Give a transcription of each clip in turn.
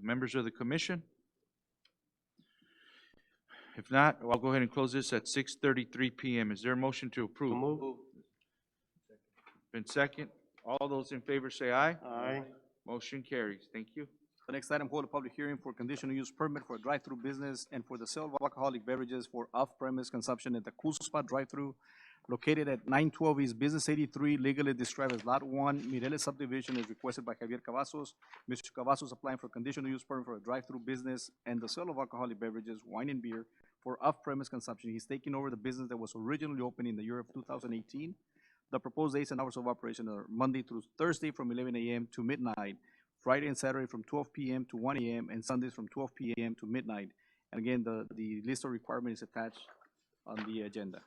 members of the commission? If not, I'll go ahead and close this at six thirty-three PM. Is there a motion to approve? Move. Been second. All those in favor say aye. Aye. Motion carries. Thank you. The next item, hold a public hearing for conditional use permit for a drive-through business and for the sale of alcoholic beverages for off-premise consumption at the Cool Spot Drive-Through located at nine twelve East Business eighty-three, legally described as Lot One, Mireles subdivision is requested by Javier Cavazos. Mr. Cavazos applying for conditional use permit for a drive-through business and the sale of alcoholic beverages, wine and beer for off-premise consumption. He's taking over the business that was originally opened in the year of two thousand eighteen. The proposed days and hours of operation are Monday through Thursday from eleven AM to midnight, Friday and Saturday from twelve PM to one AM, and Sundays from twelve PM to midnight. And again, the, the list of requirements is attached on the agenda.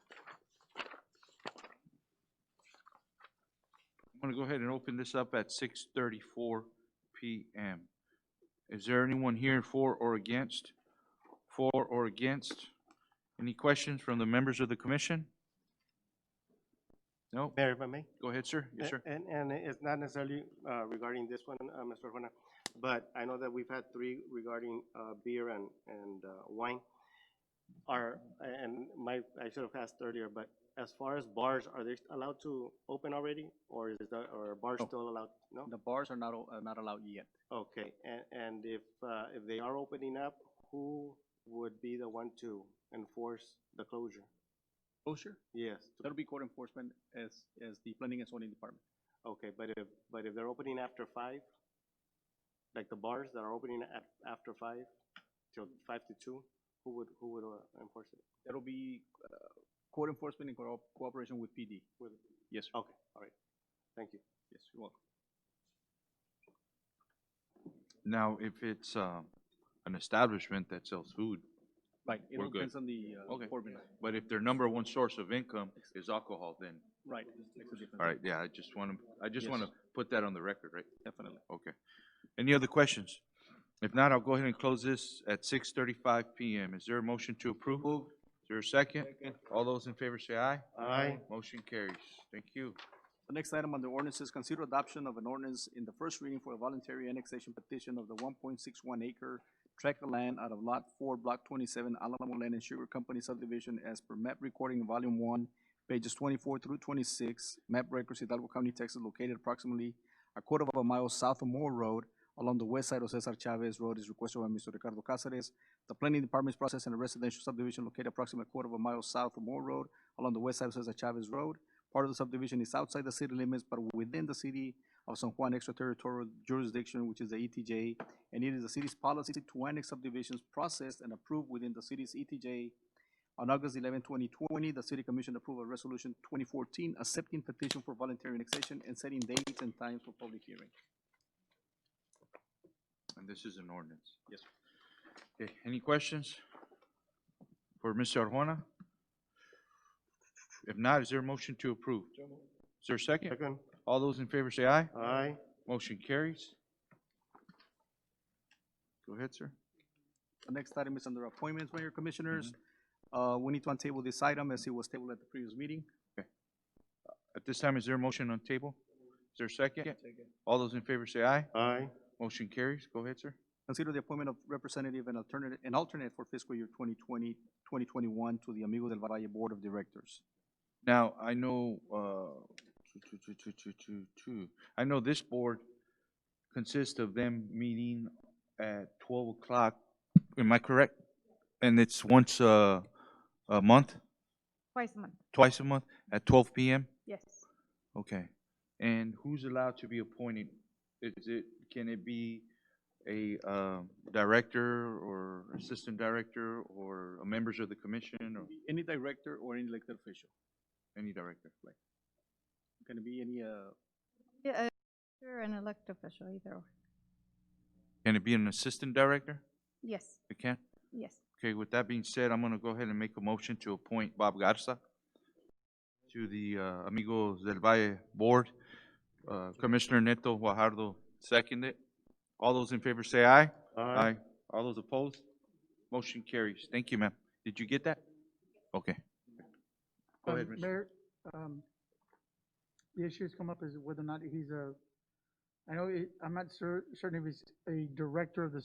I'm gonna go ahead and open this up at six thirty-four PM. Is there anyone here for or against? For or against? Any questions from the members of the commission? No? Mayor, if I may? Go ahead, sir. Yes, sir. A- And, and it's not necessarily uh, regarding this one, uh, Mr. Arjona, but I know that we've had three regarding uh, beer and, and uh, wine. Are, and my, I should have asked earlier, but as far as bars, are they allowed to open already? Or is the, are bars No. still allowed? No? The bars are not, o- are not allowed yet. Okay, and, and if, uh, if they are opening up, who would be the one to enforce the closure? Closure? Yes, That'll be court enforcement as, as the planning and zoning department. okay, but if, but if they're opening after five, like the bars that are opening at, after five till five to two, who would, who would uh, enforce it? That'll be, uh, court enforcement in co- cooperation with PD. With- Yes, sir. Okay, all right, thank you. yes, you're welcome. Now, if it's, um, an establishment that sells food, Right, it We're all good. depends on the, uh, Okay. formula. but if their number one source of income is alcohol, then, Right. makes a difference. all right, yeah, I just wanna, I just Yes. wanna put that on the record, right? Definitely. Okay. Any other questions? If not, I'll go ahead and close this at six thirty-five PM. Is there a motion to approve? Is there a second? All those in favor say aye. Aye. Motion carries. Thank you. The next item on the ordinance is consider adoption of an ordinance in the first reading for a voluntary annexation petition of the one point six one acre tract of land out of lot four, block twenty-seven, Alamo Land and Sugar Company subdivision as per map recording volume one, pages twenty-four through twenty-six, map records Hidalgo County, Texas, located approximately a quarter of a mile south of Moore Road along the west side of Cesar Chavez Road is requested by Mr. Ricardo Cáceres. The planning department is processing a residential subdivision located approximately a quarter of a mile south of Moore Road along the west side of Cesar Chavez Road. Part of the subdivision is outside the city limits, but within the city of San Juan extraterritorial jurisdiction, which is the ETJ, and it is the city's policy to annex subdivisions processed and approved within the city's ETJ. On August 11, 2020, the city commission approved a resolution 2014 accepting petition for voluntary annexation and setting dates and times for public hearing. And this is an ordinance. Yes, sir. Okay, any questions for Mr. Arjona? If not, is there a motion to approve? Is there a second? Second. All those in favor say aye. Aye. Motion carries. Go ahead, sir. The next item is under appointments, Mayor Commissioners. Uh, we need to untable this item as it was tabled at the previous meeting. At this time, is there a motion on table? Is there a second? All those in favor say aye. Aye. Motion carries. Go ahead, sir. Consider the appointment of representative and alternate, and alternate for fiscal year 2020, 2021 to the Amigos del Valle Board of Directors. Now, I know, uh, two, two, two, two, two, two. I know this board consists of them meeting at twelve o'clock. Am I correct? And it's once a, a month, Twice a month, twice a month, at twelve PM? yes. Okay. And who's allowed to be appointed? Is it, can it be a, um, director or assistant director or members of the commission or Any director or any elected official, any director? Like, can it be any, uh, Yeah, uh, You're an elected official either, or- Can it be an assistant director? yes, It can? yes. Okay, with that being said, I'm gonna go ahead and make a motion to appoint Bob Garza to the uh, Amigos del Valle Board. Uh, Commissioner Neto Guajardo seconded. All those in favor say aye. All those opposed? Motion carries. Thank you, ma'am. Did you get that? Okay. Go ahead, Um, Mr. Mayor, um, the issue's come up is whether or not he's a, I know, he- I'm not cer- certain if he's a director of the